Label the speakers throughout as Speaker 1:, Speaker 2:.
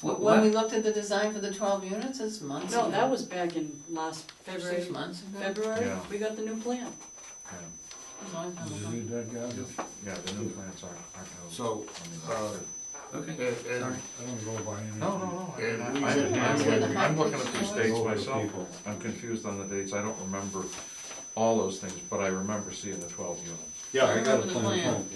Speaker 1: Wh-
Speaker 2: What?
Speaker 1: When we looked at the design for the twelve units, it's months ago.
Speaker 2: No, that was back in last February,
Speaker 1: Six months ago.
Speaker 2: February,
Speaker 3: Yeah.
Speaker 2: we got the new plan.
Speaker 1: A long time
Speaker 4: Did you
Speaker 1: ago.
Speaker 4: read that, guys?
Speaker 3: Yeah, the new plants aren't, aren't.
Speaker 5: So, uh, and,
Speaker 6: Okay,
Speaker 5: and,
Speaker 6: sorry.
Speaker 4: I don't go by anything.
Speaker 3: No, no, no. I-
Speaker 5: and we-
Speaker 3: I- I'm-
Speaker 5: Is
Speaker 1: it
Speaker 3: I'm
Speaker 1: the
Speaker 3: I'm looking at
Speaker 1: high-pitched
Speaker 3: these
Speaker 1: voice?
Speaker 3: dates
Speaker 4: Over the
Speaker 3: myself,
Speaker 4: people.
Speaker 3: I'm confused on the dates, I don't remember all those things, but I remember seeing the twelve units.
Speaker 4: Yeah,
Speaker 1: I
Speaker 4: I got a
Speaker 1: remember the
Speaker 4: plan,
Speaker 1: plan.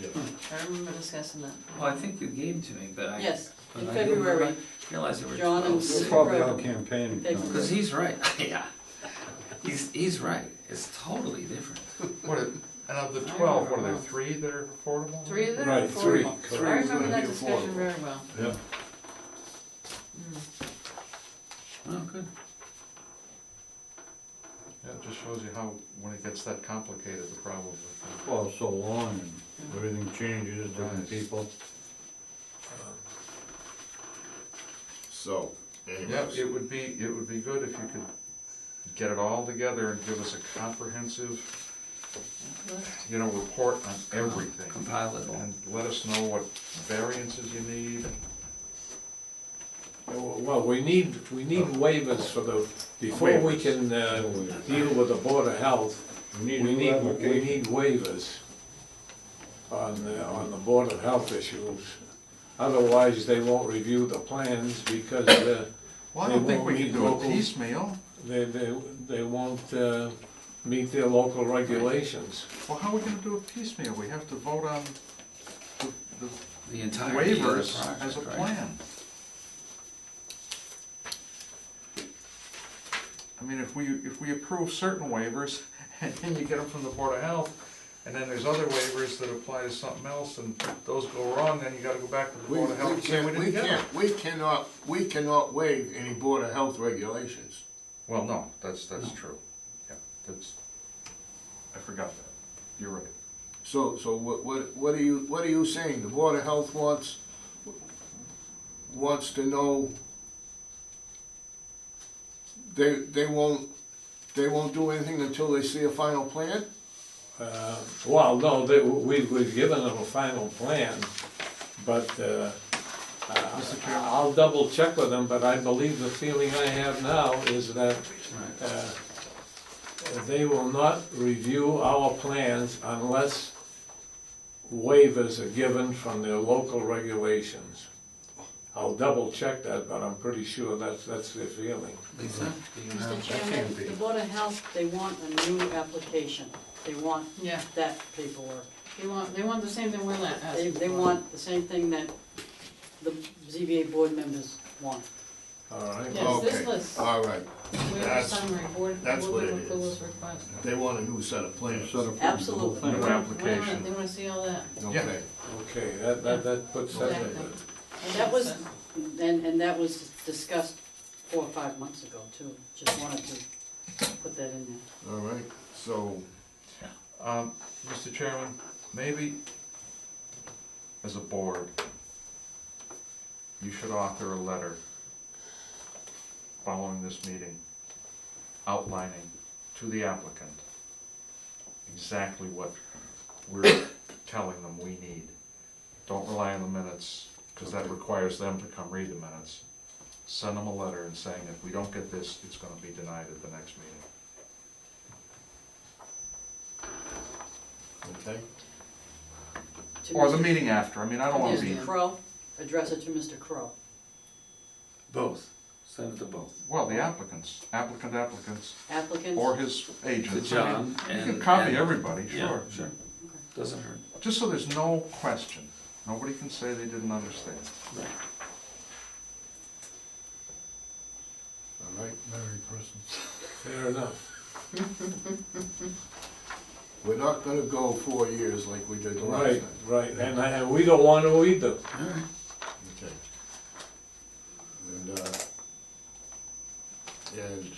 Speaker 4: yeah.
Speaker 1: I remember discussing that.
Speaker 6: Well, I think you gave them to me, but I.
Speaker 2: Yes,
Speaker 6: but
Speaker 2: in
Speaker 6: I didn't
Speaker 2: February.
Speaker 6: Realize they were
Speaker 2: John and
Speaker 4: It's
Speaker 2: Sue.
Speaker 6: twelve.
Speaker 4: probably out campaigning.
Speaker 2: They-
Speaker 6: Because he's right, yeah. He's, he's right, it's totally different.
Speaker 3: What, are- and of the twelve, what are there, three that are affordable?
Speaker 1: Three of them?
Speaker 4: Right,
Speaker 1: Four.
Speaker 4: three.
Speaker 1: I remember that discussion very well.
Speaker 4: Yeah.
Speaker 6: Oh, good.
Speaker 3: Yeah, it just shows you how, when it gets that complicated, the problem with. it.
Speaker 4: Well, so long, and everything changes,
Speaker 3: Right.
Speaker 4: different people.
Speaker 5: so,
Speaker 3: Yeah,
Speaker 5: anyways,
Speaker 3: it would be, it would be good if you could get it all together and give us a comprehensive, you know, report on everything.
Speaker 6: Compile it all.
Speaker 3: And let us know what variances you need.
Speaker 7: Well, we need, we need waivers for the, before we can uh, deal with the Board of Health,
Speaker 4: We need
Speaker 7: we
Speaker 4: a new
Speaker 7: need, we
Speaker 4: application.
Speaker 7: need waivers on, the- on the Board of Health issues. Otherwise, they won't review the plans because uh,
Speaker 3: Well, I
Speaker 7: They
Speaker 3: don't think we
Speaker 7: won't
Speaker 3: can
Speaker 7: need
Speaker 3: do it
Speaker 7: local-
Speaker 3: piecemeal.
Speaker 7: they, they, they won't uh, meet their local regulations.
Speaker 3: Well, how are we gonna do it piecemeal? We have to vote on the- the
Speaker 6: The entire.
Speaker 3: waivers as a plan. I mean, if we, if we approve certain waivers, and then you get them from the Board of Health, and then there's other waivers that apply to something else, and those go wrong, then you gotta go back to the
Speaker 5: we,
Speaker 3: Board of Health
Speaker 5: we
Speaker 3: and say we
Speaker 5: can't, we
Speaker 3: didn't get them.
Speaker 5: can't, we cannot, we cannot waive any Board of Health regulations.
Speaker 3: Well, no, that's, that's true. Yeah, that's, I forgot that. You're right.
Speaker 5: So, so what, what, what are you, what are you saying? The Board of Health wants, wants to know, they, they won't, they won't do anything until they see a final plan?
Speaker 7: Uh, Well, no, they, we, we've given them a final plan, but, uh, uh, I'll double check with them, but I believe the feeling I have now is that, uh, they will not review our plans unless waivers are given from their local regulations. I'll double check that, but I'm pretty sure that's, that's their feeling.
Speaker 6: Lisa, do you know?
Speaker 2: Mr. Chairman, the Board of Health, they want a new application. They want
Speaker 1: Yeah,
Speaker 2: that paperwork.
Speaker 1: they want, they want the same thing we're like.
Speaker 2: They, they want the same thing that the ZBA board members want.
Speaker 7: All right?
Speaker 1: Yes, this
Speaker 5: Okay,
Speaker 1: list,
Speaker 5: All right,
Speaker 1: waiver
Speaker 5: that's-
Speaker 1: summary, board, board
Speaker 5: that's what it
Speaker 1: with
Speaker 5: is.
Speaker 1: Clueless request.
Speaker 5: they want a new set of plans.
Speaker 4: Set up the whole
Speaker 2: Absolutely.
Speaker 4: thing.
Speaker 3: New
Speaker 1: Wait a minute,
Speaker 3: application.
Speaker 1: they wanna see all that.
Speaker 5: Okay,
Speaker 7: Okay, that, that, that puts that to
Speaker 1: Exactly.
Speaker 7: bed.
Speaker 2: That was-
Speaker 1: That's it.
Speaker 2: And, and that was discussed four or five months ago too. Just wanted to put that in there.
Speaker 5: all right, so,
Speaker 3: Um, Mr. Chairman, maybe as a board, you should author a letter following this meeting outlining to the applicant exactly what we're telling them we need. Don't rely on the minutes, because that requires them to come read the minutes. Send them a letter and saying if we don't get this, it's gonna be denied at the next meeting.
Speaker 5: okay.
Speaker 2: To
Speaker 3: Or the
Speaker 2: Mr.
Speaker 3: meeting after, I mean, I don't wanna be,
Speaker 2: Mr. Crow, address it to Mr. Crow.
Speaker 6: Both, send it to both.
Speaker 3: well, the applicants, applicant applicants,
Speaker 2: Applicants,
Speaker 3: or his
Speaker 6: To
Speaker 3: agent.
Speaker 6: John
Speaker 3: I mean,
Speaker 6: uh, and.
Speaker 3: You can copy
Speaker 6: and-
Speaker 3: everybody,
Speaker 6: yeah,
Speaker 3: sure,
Speaker 6: Sure, doesn't hurt.
Speaker 3: just so there's no question, nobody can say they didn't understand.
Speaker 6: Right.
Speaker 5: All right,
Speaker 4: Merry Christmas.
Speaker 7: Fair enough.
Speaker 5: we're not gonna go four years like we did the last
Speaker 7: Right,
Speaker 5: time.
Speaker 7: right, and, I- and we don't want to either.
Speaker 5: Okay. And, uh, and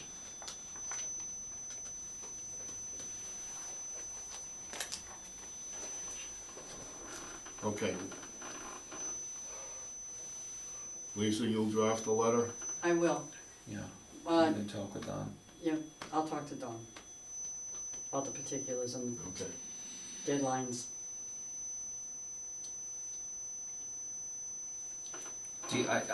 Speaker 5: okay. Lisa, you'll draft the letter?
Speaker 2: I will.
Speaker 6: Yeah,
Speaker 2: Uh,
Speaker 6: you can talk with Don.
Speaker 2: Yeah, I'll talk to Don about the particulars and
Speaker 5: Okay.
Speaker 2: deadlines.
Speaker 6: Do you, I,